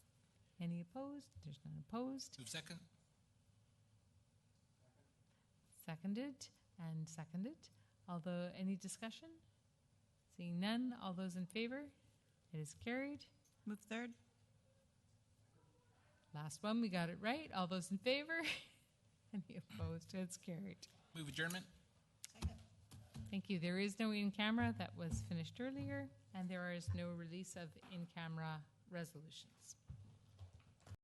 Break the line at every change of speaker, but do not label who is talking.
Any opposed? There's none opposed.
Move second.
Seconded and seconded. Although, any discussion? Seeing none, all those in favor? It is carried.
Move third.
Last one, we got it right. All those in favor? Any opposed? It's carried.
Move adjournment.
Thank you. There is no in camera that was finished earlier, and there is no release of in camera resolutions.